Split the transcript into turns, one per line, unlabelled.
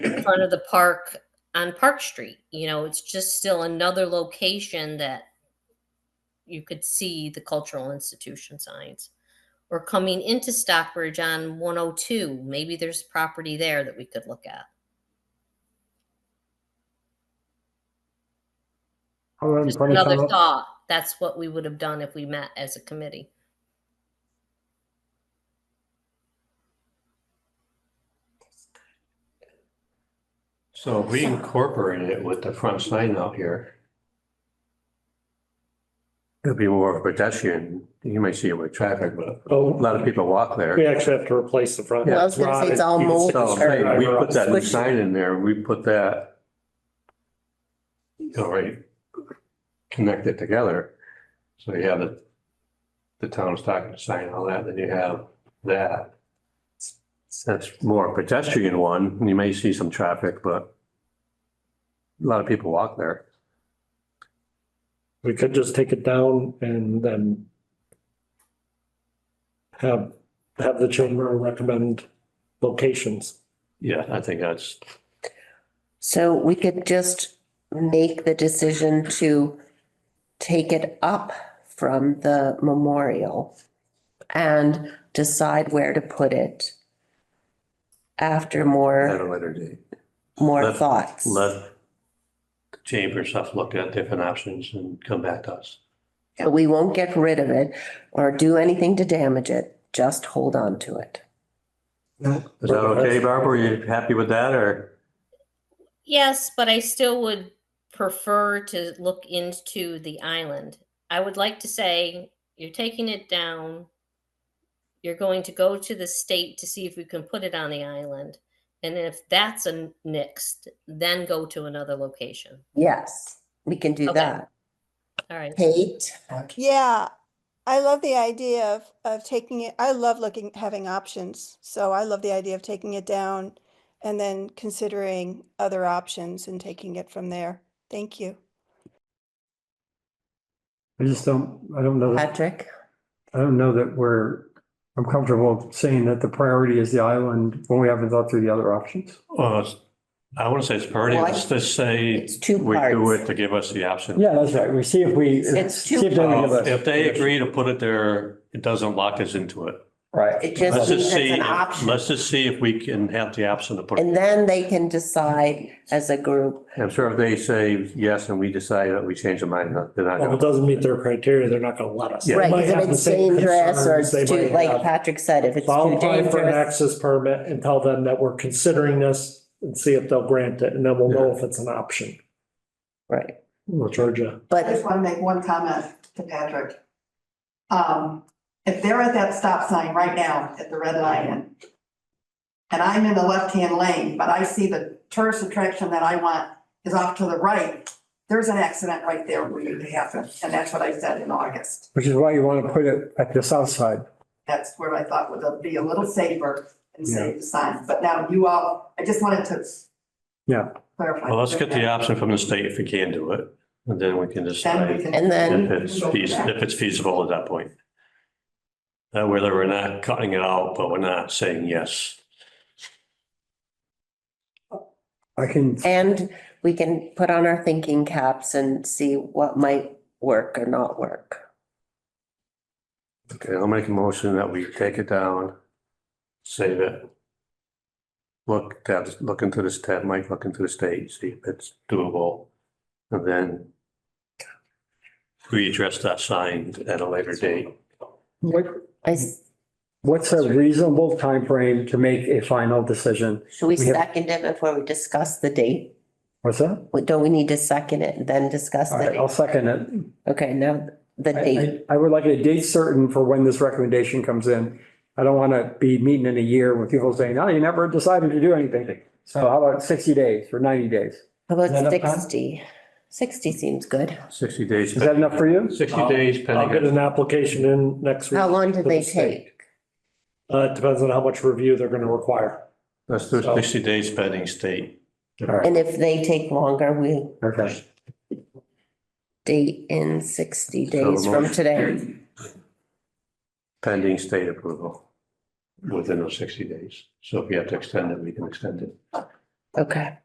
in front of the park on Park Street. You know, it's just still another location that you could see the cultural institution signs. Or coming into Stockbridge on 102, maybe there's property there that we could look at.
How around
Just
Funny
another
Farm-
thought. That's what we would have done if we met as a committee.
So if we incorporated it with the front sign out here. It'll be more of a pedestrian, you may see it with traffic, but a
Oh,
lot of people walk
we
there.
actually have to replace the front.
Well, I was gonna say it's all
Rotted.
mold.
So hey, Oh, we put that new
Switch.
sign in there, we put that. All right, connect it together. So you have the, the town of Stockton sign, all that, then you have that. That's more pedestrian one, you may see some traffic, but a lot of people walk there.
We could just take it down and then have, have the chamber recommend locations.
Yeah, I think that's,
So we could just make the decision to take it up from the memorial and decide where to put it after
at
more,
a later date.
more
Let-
thoughts.
Let the chamber stuff look at different options and come back to us.
So We won't get rid of it or do anything to damage it, just hold on to it.
Is that okay, Barbara? Are you happy with that or?
Yes, but I still would prefer to look into the island. I would like to say you're taking it down. You're going to go to the state to see if we can put it on the island. And if that's a nixed, then go to another location.
Yes, we can do
Okay.
that.
All right.
Kate?
Yeah, I love the idea of of taking it. I love looking having options. So I love the idea of taking it down and then considering other options and taking it from there. Thank you.
I just don't, I don't know, that-
Patrick?
I don't know that we're, I'm comfortable saying that the priority is the island when we haven't thought through the other options.
Well, it's- I wouldn't say it's priority,
Well, I-
let's just say
It's two
we do it
parts.
to give us the option.
Yeah, that's right. We see if we.
It's two
see if they would give
Uh,
us-
If they agree to put it there, it doesn't lock us into it.
Right.
It just
Let's
means
just
it's
see,
an option.
let's just see if we can have the option to put it.
And then they can decide as a group.
I'm sure if they say yes and we decide that we change our mind, they're not
If it
gonna.
doesn't meet their criteria, they're not gonna let us. They
Right,
might
because if
have the
it's
same
dangerous or
concerns,
it's
they
too,
might
like
have-
Patrick said, if it's
So I'll
too
apply for an
dangerous.
access permit and tell them that we're considering this and see if they'll grant it, and then we'll know if it's an option.
Right,
We'll charge you.
I
but
just want to make one comment to Patrick. Um, if they're at that stop sign right now at the red lion, and I'm in the left-hand lane, but I see the tourist attraction that I want is off to the right, there's an accident right there waiting to happen, and that's what I said in August.
Which is why you want to put it at the south side.
That's where I thought would be a little safer and save the sign, but now you all, I just wanted to.
Yeah.
Clarify.
Well, let's get the option from the state if we can do it, and then we can
Then we
decide
can.
And then-
if it's feasible, if it's feasible at that point. That way that we're not cutting it out, but we're not saying yes.
I can,
and we can put on our thinking caps and see what might work or not work.
Okay, I'll make a motion that we take it down, save it. Look, at- look into this, have Mike look into the state, see if it's doable, and then readdress that sign at a later date.
what,
I, s-
what's a reasonable time frame to make a final decision?
should we
We have-
second it before we discuss the date?
What's that?
Wait, Don't we need to second it and then discuss
All
the
right, I'll
date?
second it.
Okay, now the
I-
date,
I I would like a date certain for when this recommendation comes in. I don't want to be meeting in a year with people saying, no, you never decided to do anything. So how about sixty days or ninety days?
how
Is that
about
enough time?
sixty? Sixty seems good.
Sixty days.
Is that enough for you? Oh.
Sixty days
I'll get
pending.
an application in next week.
How long do
to the
they
state.
take?
Uh, it depends on how much review they're gonna require.
Let's do sixty days pending state.
All right,
And if they take longer, we
okay.
date in sixty
So the
days from
motion-
today.
Pending state approval within those sixty days. So if you have to extend it, we can extend it.
Okay.